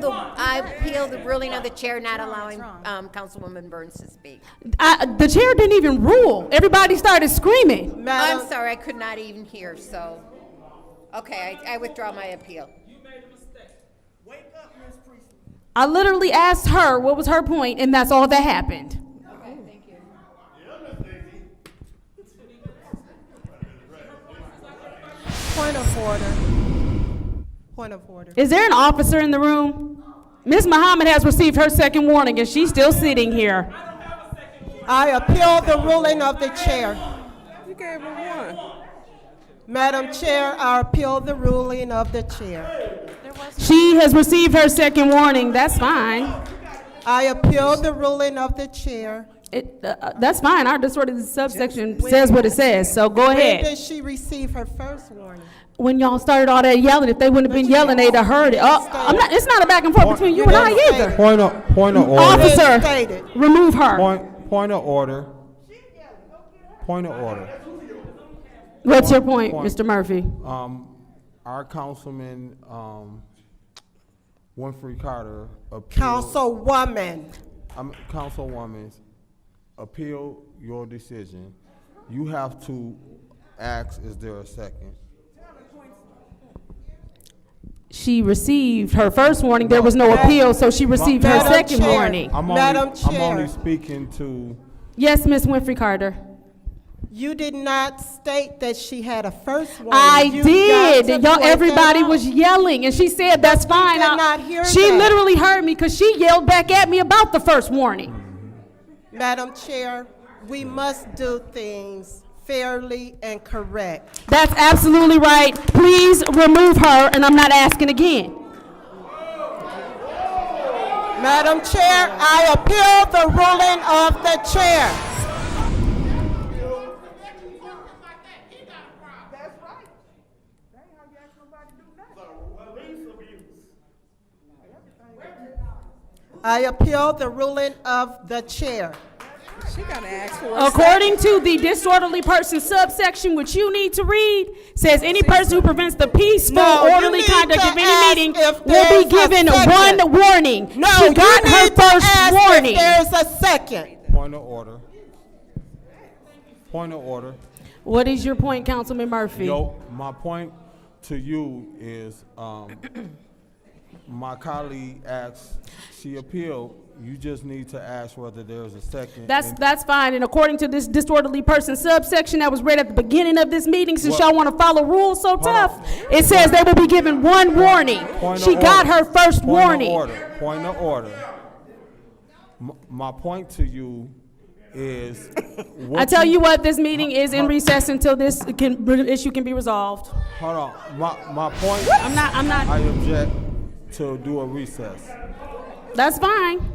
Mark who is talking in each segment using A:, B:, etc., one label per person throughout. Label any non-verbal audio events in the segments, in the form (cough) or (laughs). A: The- I appeal the ruling of the chair not allowing um, Councilwoman Burns to speak.
B: I, the chair didn't even rule. Everybody started screaming.
A: I'm
C: Madam,
A: sorry, I could not even hear, so, okay, I I withdraw my appeal.
B: I literally asked her what was her point, and that's all that happened.
C: point of order. Point of order.
B: Is there an officer in the room? Ms. Muhammad has received her second warning, and she's still sitting here.
C: I appeal the ruling of the chair.
D: You gave her one.
C: Madam Chair, I appeal the ruling of the chair.
B: She has received her second warning. That's fine.
C: I appeal the ruling of the chair.
B: It, uh, uh, that's fine. Our disorderly subsection says what it says, so go
C: When
B: ahead.
C: did she receive her first warning?
B: When y'all started all that yelling, if they wouldn't have been yelling, they'd have heard it. Uh, I'm not, it's not a back and forth between you and I either.
E: Point of, point of order.
B: Officer,
C: Stated.
B: remove her.
E: Point, point of order. Point of order.
B: What's your point,
E: Point.
B: Mr. Murphy?
E: Um, our councilman, um, Winfrey Carter appealed.
C: Councilwoman,
E: I'm, councilwoman, appeal your decision. You have to ask, is there a second?
B: She received her first warning. There was no appeal, so she received her
C: Madam
B: second
C: Chair.
B: warning.
E: I'm
C: Madam
E: only, I'm
C: Chair.
E: only speaking to,
B: Yes, Miss Winfrey Carter.
C: you did not state that she had a first warning.
B: I
C: You got
B: did.
C: to
B: Y'all,
C: point that
B: everybody
C: out.
B: was yelling, and she said, "That's fine."
C: did
B: I-
C: not hear
B: she
C: that.
B: literally heard me because she yelled back at me about the first warning.
C: Madam Chair, we must do things fairly and correct.
B: That's absolutely right. Please remove her, and I'm not asking again.
C: Madam Chair, I appeal the ruling of the chair. I appeal the ruling of the chair.
D: She gotta ask for a
B: According to the disorderly person subsection, which you need to read, says any person who prevents the peaceful
C: No, you
B: orderly
C: need
B: conduct
C: to
B: of
C: ask
B: any meeting
C: if
B: will be
C: there's a
B: given
C: second.
B: one warning.
C: No,
B: She got
C: you
B: her
C: need to ask
B: first
C: if
B: warning.
C: There's a second.
E: point of order. Point of order.
B: What is your point, Councilman Murphy?
E: Yo, my point to you is,
B: (clears throat)
E: um, my colleague asked, she appealed, you just need to ask whether there's a second.
B: That's,
E: and-
B: that's fine, and according to this disorderly person subsection that was read at the beginning of this meeting, since
E: Well-
B: y'all wanna follow rules so
E: on.
B: tough, it says they will be given one warning.
E: Point of
B: She got
E: order.
B: her first
E: Point of
B: warning.
E: order. Point of order. M- My point to you is.
B: (laughs) I
E: what
B: tell you what, this meeting is in recess until this can, issue can be resolved.
E: Hold on, my, my point,
B: I'm not, I'm not,
E: I object to do a recess.
B: that's fine.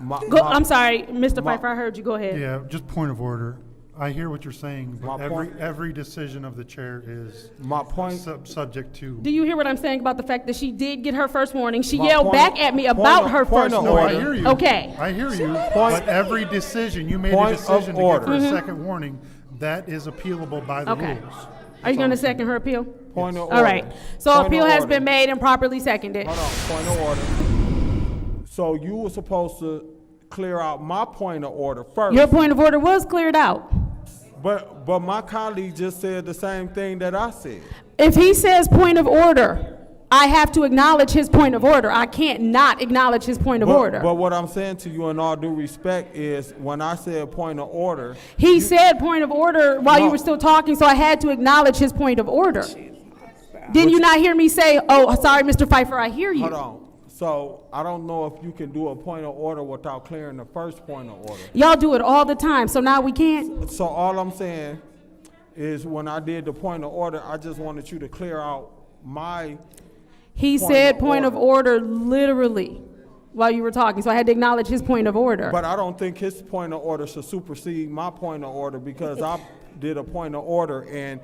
E: My-
B: Go,
E: my-
B: I'm sorry, Mr.
E: my-
B: Pfeiffer, I heard you, go ahead.
F: Yeah, just point of order. I hear what you're saying, but
E: My
F: every,
E: point-
F: every decision of the chair is
E: My point.
F: sub, subject to.
B: Do you hear what I'm saying about the fact that she did get her first warning? She
E: My
B: yelled
E: point-
B: back at me
E: point
B: about
E: of-
B: her
E: point
B: first
E: of
F: No, I
E: order.
B: warning.
F: hear you.
B: Okay.
F: I hear you,
E: Point-
F: but every decision, you made
E: Point
F: a
E: of
F: decision to give
E: order.
F: her a second warning, that is appealable by the
B: Okay.
F: rules.
B: Are you gonna second her appeal?
E: Point of order.
B: All right, so
E: Point of
B: appeal has
E: order.
B: been made and properly seconded.
E: Hold on, point of order. So you were supposed to clear out my point of order first.
B: Your point of order was cleared out.
E: But, but my colleague just said the same thing that I said.
B: If he says point of order, I have to acknowledge his point of order. I can't not acknowledge his point of
E: But- But
B: order.
E: what I'm saying to you in all due respect is, when I said point of order,
B: He said point of order while you
E: No.
B: were still talking, so I had to acknowledge his point of order. Didn't you not hear me say, oh, sorry, Mr. Pfeiffer, I hear
E: hold
B: you?
E: on. So I don't know if you can do a point of order without clearing the first point of order.
B: Y'all do it all the time, so now we can't?
E: So all I'm saying is, when I did the point of order, I just wanted you to clear out my,
B: He
E: Point
B: said
E: of
B: point of order literally while you were talking, so I had to acknowledge his point of order.
E: but I don't think his point of order should supersede my point of order because I did a point of order and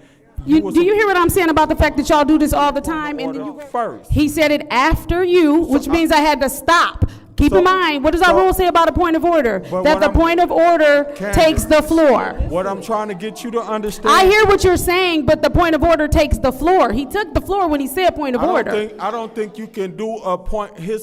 E: you
B: You,
E: was.
B: do you hear what I'm saying about the fact that y'all do this all the time and then you
E: Order first.
B: He said it after you, which means I had to stop. Keep in
E: So-
B: mind, what does our
E: so-
B: rule say about a point of order?
E: But
B: That
E: what
B: the
E: I'm-
B: point of order
E: Candace,
B: takes the floor.
E: What I'm trying to get you to understand.
B: I hear what you're saying, but the point of order takes the floor. He took the floor when he said point of
E: I don't
B: order.
E: think- I don't think you can do a point, his